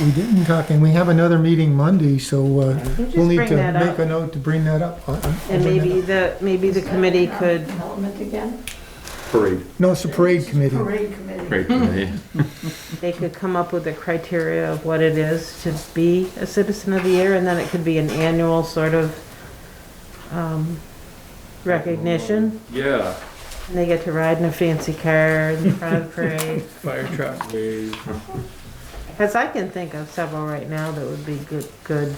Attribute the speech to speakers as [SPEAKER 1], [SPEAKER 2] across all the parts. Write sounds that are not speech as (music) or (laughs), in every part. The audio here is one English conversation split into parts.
[SPEAKER 1] We didn't talk, and we have another meeting Monday, so uh,
[SPEAKER 2] Just
[SPEAKER 1] we'll need
[SPEAKER 2] bring
[SPEAKER 1] to
[SPEAKER 2] that
[SPEAKER 1] make
[SPEAKER 2] up.
[SPEAKER 1] a note to bring that up. I'll- I'll bring that
[SPEAKER 2] And maybe
[SPEAKER 1] up.
[SPEAKER 2] the, maybe the committee could,
[SPEAKER 3] Development again?
[SPEAKER 4] Parade.
[SPEAKER 1] No, it's the parade committee.
[SPEAKER 3] Parade committee.
[SPEAKER 4] Parade committee.
[SPEAKER 2] they could come up with a criteria of what it is to be a citizen of the year, and then it could be an annual sort of, um, recognition.
[SPEAKER 4] Yeah.
[SPEAKER 2] And they get to ride in a fancy car in front of the
[SPEAKER 1] (laughs)
[SPEAKER 2] parade.
[SPEAKER 5] Fire truck.
[SPEAKER 2] Cause I can think of several right now that would be good, good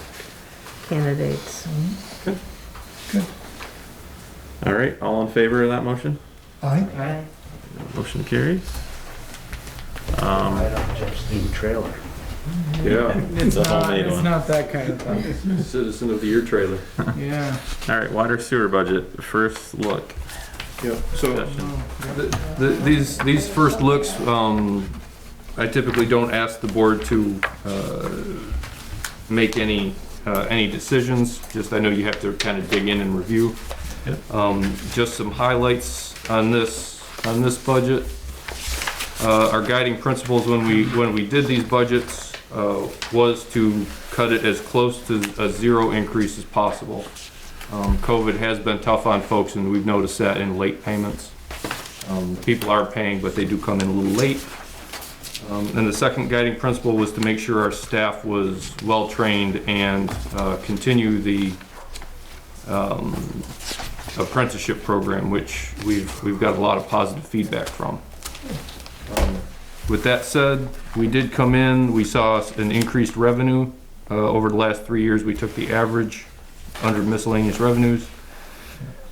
[SPEAKER 2] candidates.
[SPEAKER 4] All right, all in favor of that motion?
[SPEAKER 1] Aye.
[SPEAKER 2] Right.
[SPEAKER 4] Motion carries. Um,
[SPEAKER 6] up Jeff's new trailer.
[SPEAKER 4] (laughs) yeah.
[SPEAKER 5] It's
[SPEAKER 4] a
[SPEAKER 5] not,
[SPEAKER 4] homemade
[SPEAKER 5] it's
[SPEAKER 4] one.
[SPEAKER 5] not that kind
[SPEAKER 1] (laughs)
[SPEAKER 5] of thing.
[SPEAKER 4] Citizen of the Year trailer.
[SPEAKER 5] Yeah.
[SPEAKER 4] All right, water sewer budget, first look.
[SPEAKER 7] Yep, so
[SPEAKER 4] Discussion.
[SPEAKER 7] th- th- these, these first looks, um, I typically don't ask the board to uh, make any, uh, any decisions, just I know you have to kind of dig in and review. Um, Just some highlights on this, on this budget. Uh, Our guiding principles when we, when we did these budgets uh, was to cut it as close to a zero increase as possible. Um, COVID has been tough on folks, and we've noticed that in late payments. Um, people are paying, but they do come in a little late. Um, and the second guiding principle was to make sure our staff was well-trained and, uh, continue the, um, apprenticeship program, which we've, we've got a lot of positive feedback from. Um, With that said, we did come in, we saw an increased revenue, uh, over the last three years, we took the average under miscellaneous revenues.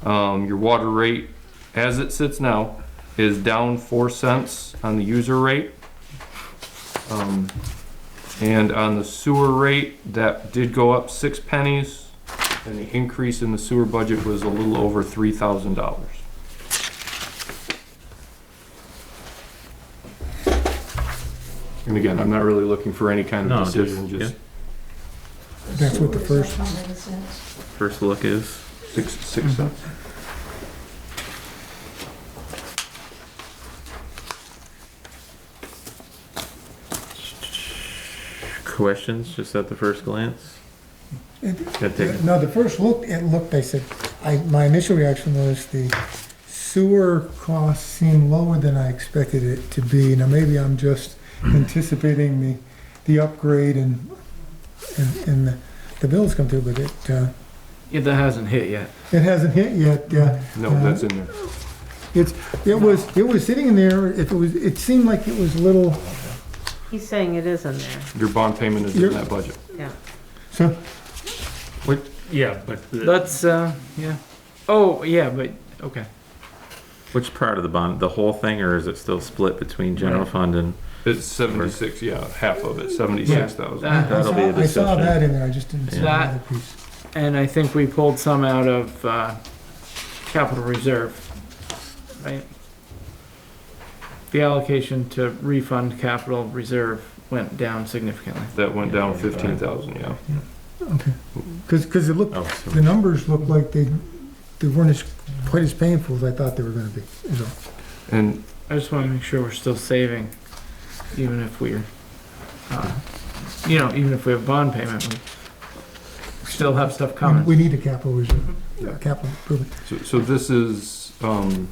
[SPEAKER 7] Um, your water rate, as it sits now, is down four cents on the user rate. Um, and on the sewer rate, that did go up six pennies, and the increase in the sewer budget was a little over three thousand dollars. And again, I'm not really looking for any kind
[SPEAKER 4] No,
[SPEAKER 7] of
[SPEAKER 4] just-
[SPEAKER 7] decision, just
[SPEAKER 1] That's what the first-
[SPEAKER 4] First look is,
[SPEAKER 7] six, six cents.
[SPEAKER 4] questions just at the first glance?
[SPEAKER 1] It-
[SPEAKER 4] Gotta take it.
[SPEAKER 1] No, the first look, it looked, I said, I, my initial reaction was the sewer costs seemed lower than I expected it to be. Now, maybe I'm just anticipating the, the upgrade and, and, and the- the bills come through, but it, uh,
[SPEAKER 5] Yeah, that hasn't hit yet.
[SPEAKER 1] it hasn't hit yet. Uh,
[SPEAKER 7] No, that's in there.
[SPEAKER 1] It's, it was, it was sitting in there, if it was, it seemed like it was a little,
[SPEAKER 2] He's saying it is in there,
[SPEAKER 7] Your bond payment is in that budget.
[SPEAKER 2] yeah.
[SPEAKER 1] so,
[SPEAKER 6] Yeah, but
[SPEAKER 5] Let's, uh, yeah. Oh, yeah, but, okay.
[SPEAKER 4] Which part of the bond, the whole thing, or is it still split between general fund and?
[SPEAKER 7] It's seventy-six, yeah, half of it, seventy-six thousand.
[SPEAKER 5] That-
[SPEAKER 1] I
[SPEAKER 4] That'll be a
[SPEAKER 1] saw, I saw
[SPEAKER 4] discussion.
[SPEAKER 1] that in there, I just didn't see the
[SPEAKER 5] Yeah.
[SPEAKER 1] other piece.
[SPEAKER 5] And I think we pulled some out of, uh, capital reserve, right? The allocation to refund capital reserve went down significantly.
[SPEAKER 7] That went down fifteen thousand, yeah.
[SPEAKER 1] Okay, cause, 'cause it looked,
[SPEAKER 4] Oh, so-
[SPEAKER 1] the numbers looked like they, they weren't as, quite as painful as I thought they were gonna be, is all.
[SPEAKER 7] And
[SPEAKER 5] I just wanna make sure we're still saving, even if we're, uh, you know, even if we have bond payment, we still have stuff coming.
[SPEAKER 1] We need a capital reserve, a capital improvement.
[SPEAKER 7] so, so this is, um,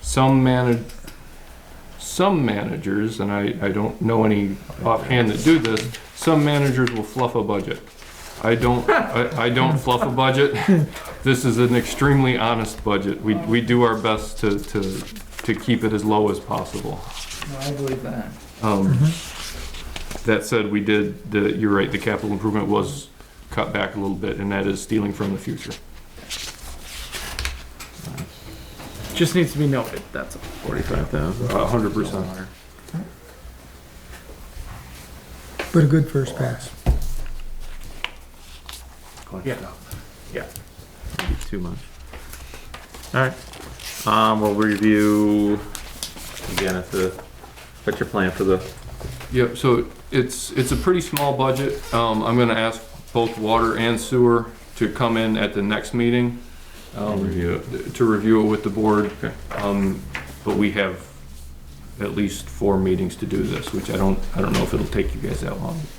[SPEAKER 7] some manage, some managers, and I, I don't know any offhand that do this, some managers will fluff a budget. I don't, I, I (laughs) don't fluff a budget. This is an extremely honest budget. We, we do our best to, to, to keep it as low as possible.
[SPEAKER 5] I believe that.
[SPEAKER 7] Um, That said, we did, the, you're right, the capital improvement was cut back a little bit, and that is stealing from the future.
[SPEAKER 5] Just needs to be noted, that's all.
[SPEAKER 4] Forty-five thousand.
[SPEAKER 7] A hundred percent.
[SPEAKER 1] But a good first pass.
[SPEAKER 5] Yeah.
[SPEAKER 4] Too much. All right. Um, we'll review again at the, what's your plan for the
[SPEAKER 7] Yep, so it's, it's a pretty small budget. Um, I'm gonna ask both water and sewer to come in at the next meeting. um,
[SPEAKER 4] Review
[SPEAKER 7] To review it with the board.
[SPEAKER 4] Okay.
[SPEAKER 7] Um, but we have at least four meetings to do this, which I don't, I don't know if it'll take you guys that long.